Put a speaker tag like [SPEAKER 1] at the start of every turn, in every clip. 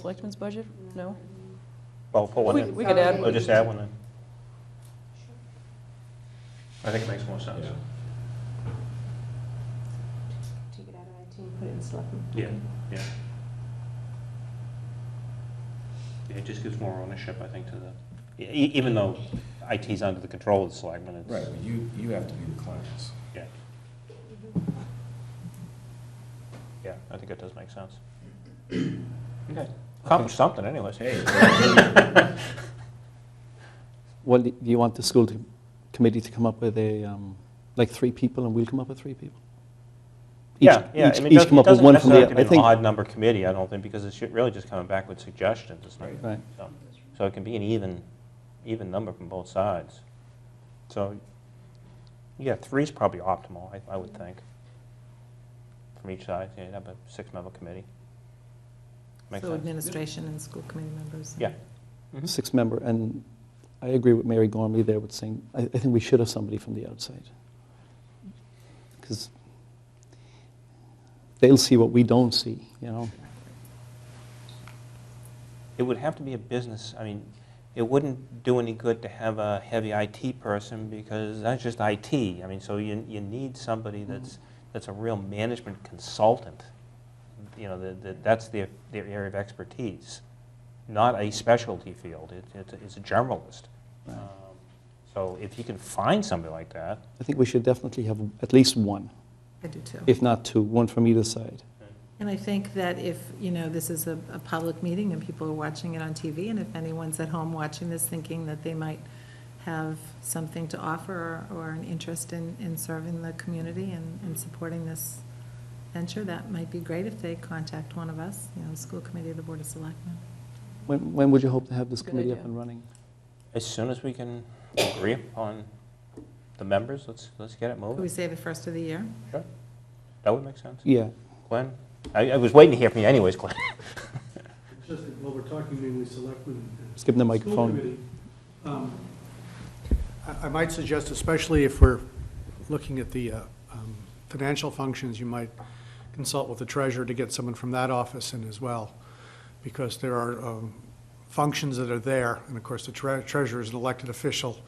[SPEAKER 1] Selectmen's budget? No?
[SPEAKER 2] Well, Oh, put one
[SPEAKER 1] We
[SPEAKER 2] in.
[SPEAKER 1] we could add,
[SPEAKER 2] Or just add one in. I think it makes more sense.
[SPEAKER 3] Take it out of IT and put it in selectmen.
[SPEAKER 2] Yeah, yeah. Yeah, It just gives more ownership, I think, to the, e- e- even though IT's under the control of the selectmen, it's.
[SPEAKER 4] Right, but you, you have to be the clients.
[SPEAKER 2] Yeah. Yeah, I think it does make sense. Okay, accomplished something anyways.
[SPEAKER 4] Hey,
[SPEAKER 5] Well, do you want the school to- committee to come up with a, um, like, three people, and we'll come up with three people? Each-
[SPEAKER 2] Yeah, yeah, I
[SPEAKER 5] each-
[SPEAKER 2] mean, it
[SPEAKER 5] Each come
[SPEAKER 2] doesn't- it
[SPEAKER 5] up with
[SPEAKER 2] doesn't
[SPEAKER 5] one from
[SPEAKER 2] necessarily have
[SPEAKER 5] the,
[SPEAKER 2] to
[SPEAKER 5] I
[SPEAKER 2] be an
[SPEAKER 5] think.
[SPEAKER 2] odd number committee, I don't think, because it's really just coming back with suggestions, it's not,
[SPEAKER 4] Right.
[SPEAKER 5] Right.
[SPEAKER 2] so. So it can be an even, even number from both sides. So, yeah, three's probably optimal, I, I would think. From each side, yeah, you'd have a six-member committee. Makes
[SPEAKER 6] So
[SPEAKER 2] sense.
[SPEAKER 6] administration and school committee members.
[SPEAKER 2] Yeah.
[SPEAKER 5] Six-member, and I agree with Mary Gormley there with saying, I, I think we should have somebody from the outside. Because they'll see what we don't see, you know?
[SPEAKER 2] It would have to be a business, I mean, it wouldn't do any good to have a heavy IT person because that's just IT. I mean, so you, you need somebody that's, that's a real management consultant. You know, that, that- that's their, their area of expertise, not a specialty field. It, it's a- it's a generalist.
[SPEAKER 5] Right.
[SPEAKER 2] Um, So if you can find somebody like that,
[SPEAKER 5] I think we should definitely have at least one,
[SPEAKER 6] I do too.
[SPEAKER 5] if not two, one from either side.
[SPEAKER 6] And I think that if, you know, this is a, a public meeting and people are watching it on TV, and if anyone's at home watching this thinking that they might have something to offer or, or an interest in, in serving the community and, and supporting this venture, that might be great if they contact one of us, you know, the school committee, the board of selectmen.
[SPEAKER 5] When, when would you hope to have this
[SPEAKER 1] Good
[SPEAKER 5] committee up
[SPEAKER 1] idea.
[SPEAKER 5] and running?
[SPEAKER 2] as soon as we can agree upon the members, let's, let's get it
[SPEAKER 6] Could we
[SPEAKER 2] moving.
[SPEAKER 6] say the first of the year?
[SPEAKER 2] That would make sense.
[SPEAKER 5] Yeah,
[SPEAKER 2] Glenn? I, I was waiting to hear from you anyways, Glenn.
[SPEAKER 7] Just that while we're talking mainly selectmen. and
[SPEAKER 5] Just give them the
[SPEAKER 7] school
[SPEAKER 5] microphone.
[SPEAKER 7] committee, um, I I might suggest, especially if we're looking at the uh, um, financial functions, you might consult with the treasurer to get someone from that office in as well, because there are um, functions that are there, and of course, the tre- treasurer is an elected official,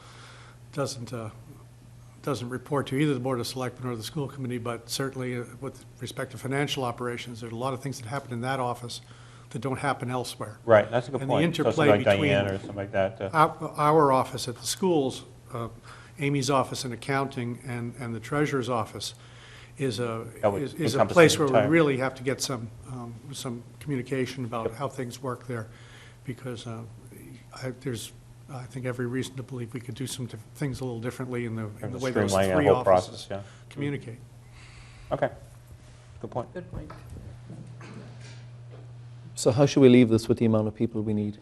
[SPEAKER 7] doesn't, uh, doesn't report to either the Board of Selectmen or the school committee, but certainly uh, with respect to financial operations, there are a lot of things that happen in that office that don't happen elsewhere.
[SPEAKER 2] Right, that's a good
[SPEAKER 7] And the
[SPEAKER 2] point. So something
[SPEAKER 7] interplay
[SPEAKER 2] like
[SPEAKER 7] between-
[SPEAKER 2] Diane or something like that. uh,
[SPEAKER 7] Our our office at the schools, uh, Amy's office in accounting and, and the treasurer's office is a,
[SPEAKER 2] That would
[SPEAKER 7] is- is a
[SPEAKER 2] encompass the
[SPEAKER 7] place where we
[SPEAKER 2] entire-
[SPEAKER 7] really have to get some, um, some communication about how things work there, because uh, I, there's, I think every reason to believe we could do some diff- things a little differently in the, in
[SPEAKER 2] and
[SPEAKER 7] the
[SPEAKER 2] the
[SPEAKER 7] way those
[SPEAKER 2] Streamlining
[SPEAKER 7] three
[SPEAKER 2] the whole process,
[SPEAKER 7] offices
[SPEAKER 2] yeah. Mm-hmm.
[SPEAKER 7] communicate.
[SPEAKER 2] Okay, good point.
[SPEAKER 1] good point.
[SPEAKER 5] so how should we leave this with the amount of people we need?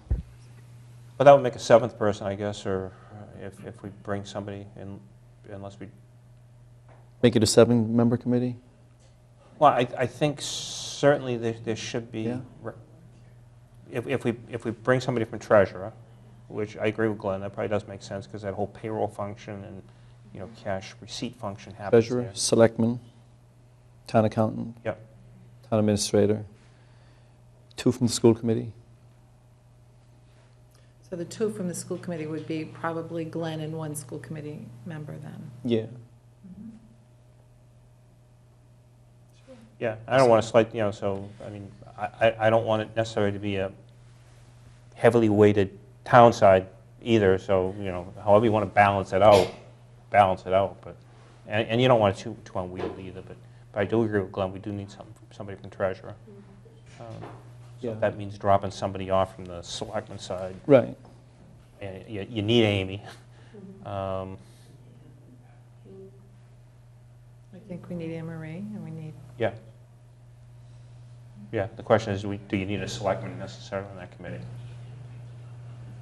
[SPEAKER 2] But that would make a seventh person, I guess, or uh, if, if we bring somebody in, unless we,
[SPEAKER 5] Make it a seven-member committee?
[SPEAKER 2] well, I, I think certainly there, there should be,
[SPEAKER 5] Yeah.
[SPEAKER 2] re- if, if we, if we bring somebody from treasurer, which I agree with Glenn, that probably does make sense, because that whole payroll function and, you know, cash receipt function happens
[SPEAKER 5] Treasurer,
[SPEAKER 2] there.
[SPEAKER 5] selectman, town accountant.
[SPEAKER 2] Yep.
[SPEAKER 5] Town administrator. Two from the school committee.
[SPEAKER 6] So the two from the school committee would be probably Glenn and one school committee member then.
[SPEAKER 5] Yeah.
[SPEAKER 2] Yeah, I don't want to slight, you know, so, I mean, I, I- I don't want it necessarily to be a heavily weighted town side either, so, you know, however you want to balance it out, balance it out, but, and, and you don't want it too, too unwieldy either, but, but I do agree with Glenn, we do need some, somebody from treasurer. Um, So
[SPEAKER 5] Yeah.
[SPEAKER 2] if that means dropping somebody off from the selectman side,
[SPEAKER 5] Right.
[SPEAKER 2] and you, you need Amy. Um,
[SPEAKER 6] I think we need Anne Marie and we need
[SPEAKER 2] Yeah. Yeah, the question is, do we- do you need a selectman necessarily on that committee?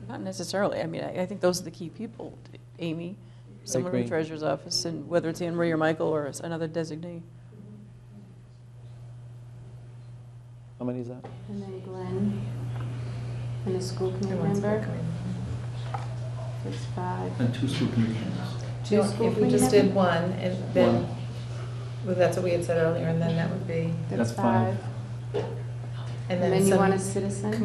[SPEAKER 1] Not necessarily, I mean, I I think those are the key people, Amy, someone from the
[SPEAKER 5] agree.
[SPEAKER 1] treasurer's office, and whether it's Anne Marie or Michael or s- another designee.
[SPEAKER 5] How many is that?
[SPEAKER 3] And then Glenn, and a school committee
[SPEAKER 6] one school
[SPEAKER 3] member,
[SPEAKER 6] committee.
[SPEAKER 3] that's five.
[SPEAKER 4] and two school committee members.
[SPEAKER 3] Two
[SPEAKER 6] No,
[SPEAKER 3] school
[SPEAKER 6] If we
[SPEAKER 3] committee
[SPEAKER 6] just did
[SPEAKER 3] members?
[SPEAKER 6] one and then,
[SPEAKER 4] One.
[SPEAKER 6] well, that's what we had said earlier and then that would be,
[SPEAKER 4] That's five.
[SPEAKER 6] and
[SPEAKER 3] And then you want a
[SPEAKER 6] then some
[SPEAKER 3] citizen?